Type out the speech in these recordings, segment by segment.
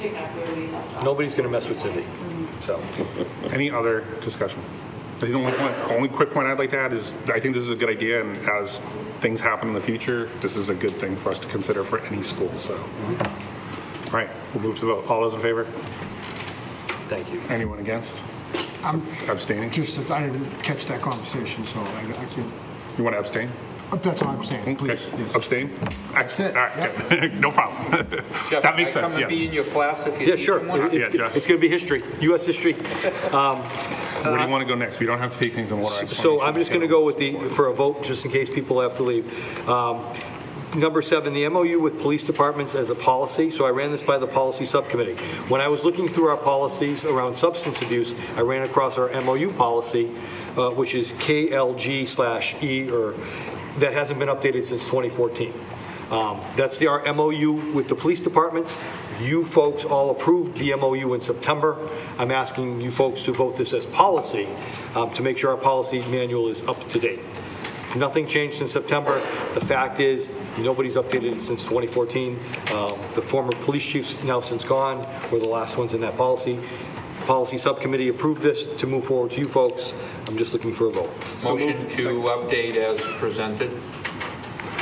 pick up where we left off. Nobody's going to mess with Cindy, so. Any other discussion? The only point, only quick point I'd like to add is, I think this is a good idea, and as things happen in the future, this is a good thing for us to consider for any school, so. All right, we'll move to the vote. All those in favor? Thank you. Anyone against? I'm Abstaining? just, I didn't catch that conversation, so I I can't, You want to abstain? but that's what I'm saying, Okay. Oh, please. yes. Abstain? Excellent. All right, good. no problem. Jeff, That makes can I sense, Come and be yes. in your class if you. Yeah, teach sure. one? It's, Yeah, Jeff. it's going to be history, US history. Where do you want to go next? We don't have to take things in order. I wanna make So sure I'm we just get going to them. go with the, for a vote, just in case people have to leave. Um, Number seven, the MOU with police departments as a policy. So I ran this by the policy subcommittee. When I was looking through our policies around substance abuse, I ran across our MOU policy, uh, which is KLG slash E, or, that hasn't been updated since 2014. Um, That's the, our MOU with the police departments. You folks all approved the MOU in September. I'm asking you folks to vote this as policy um, to make sure our policy manual is up to date. Nothing changed since September. The fact is, nobody's updated it since 2014. Um, The former police chief's now since gone, were the last ones in that policy. Policy Subcommittee approved this to move forward to you folks. I'm just looking for a vote. Motion to update as presented.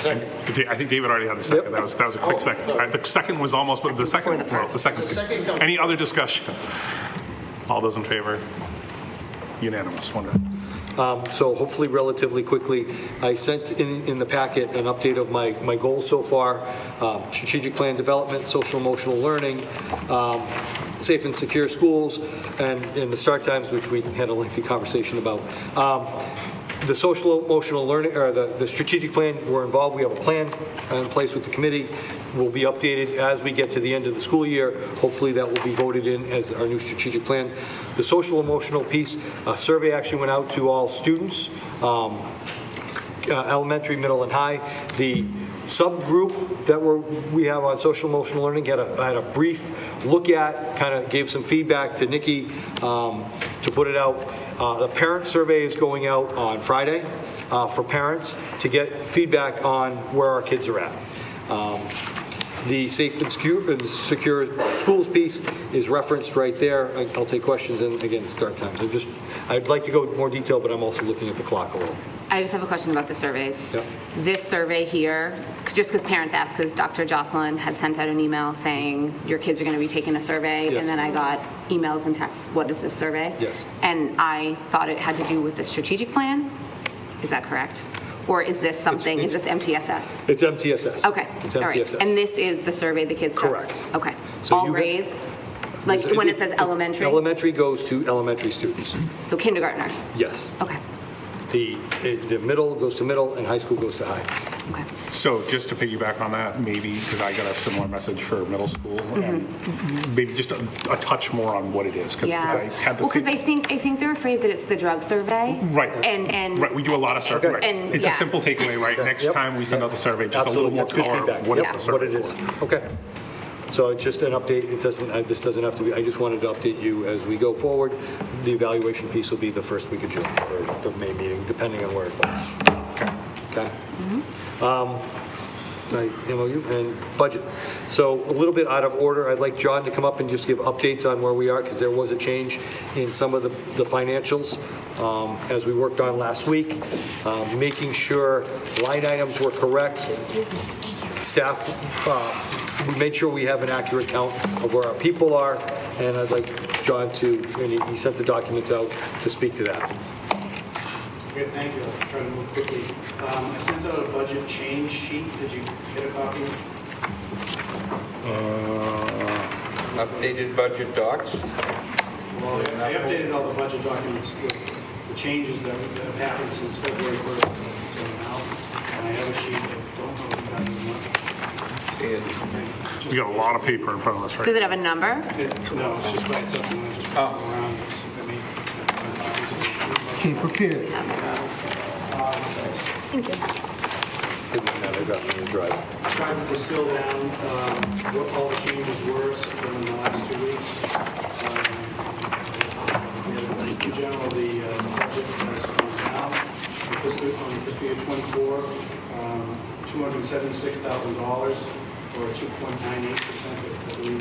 Da- I think David already had the second. That was, that was a Oh. quick second. All right, The second was almost, the second, well, the second. Any other discussion? All those in favor? Unanimous, wonderful. Um, So hopefully relatively quickly, I sent in, in the packet an update of my, my goals so far, um, strategic plan development, social emotional learning, um, safe and secure schools, and, and the start times, which we had a lengthy conversation about. Um, The social emotional learning, or the, the strategic plan, we're involved, we have a plan in place with the committee, will be updated as we get to the end of the school year. Hopefully, that will be voted in as our new strategic plan. The social emotional piece, a survey actually went out to all students, um, uh, elementary, middle, and high. The subgroup that we're, we have on social emotional learning had a, had a brief look at, kind of gave some feedback to Nikki um, to put it out. Uh, The parent survey is going out on Friday uh, for parents to get feedback on where our kids are at. Um, the safe and secu- and secure schools piece is referenced right there. I- I'll take questions and again, start times. I'm just, I'd like to go into more detail, but I'm also looking at the clock a little. I just have a question about the surveys. Yep. This survey here, c- just because parents asked, because Dr. Jocelyn had sent out an email saying your kids are going to be taking a survey. Yes. And then I got emails and texts, what is this survey? Yes. And I thought it had to do with the strategic plan. Is that correct? Or is this something, is this MTSS? It's MTSS. Okay. It's all right. MTSS. And this is the survey the kids took? Correct. Okay. So All you ha- grades? Like when it says It's- elementary? Elementary goes to elementary students, So kindergartners? yes. Okay. The, the middle goes to middle and high school goes to high. Okay. So just to piggyback on that, maybe, because I got a similar message for middle school, and Mm-hmm. maybe just a a touch more on what it is, because I Yeah. had the Well, because I same. think, I think they're afraid that it's the drug survey. Right. And, and. Right, we do a lot of survey. surveys. It's a simple takeaway, right? Next Yep. time we send out the survey, just a little Absolutely, more that's good color feedback. of what is Yeah. the survey. What it is, for. okay. So it's just an update, it doesn't, uh, this doesn't have to be, I just wanted to update you as we go forward. The evaluation piece will be the first week of June, or the May meeting, depending on where it falls. Okay. Um, I- MOU and budget. So a little bit out of order, I'd like John to come up and just give updates on where we are, because there was a change in some of the the financials um, as we worked on last week, um, making sure line items were correct. Staff, uh, we made sure we have an accurate count of where our people are, and I'd like John to, and he- he sent the documents out to speak to that. Okay, thank you. I'll try to move quickly. Um, I sent out a budget change sheet. Did you get a copy? Updated budget docs. Well, I updated all the budget documents with the changes that that have happened since February 1st until now. And I have a sheet that don't know if you guys Uh, We got a lot of paper in front of us right Does it have a number? want. No, it's Oh. just by itself, and I just pass it around. It's- I mean, uh, Be prepared. Didn't matter, I got it in the drive. I Tried to distill down um, what all the changes were from the last two weeks. Um, In general, the uh, budget has gone down. For fiscal- On fiscal year um, '24, $276,000, or 2.98%, I believe,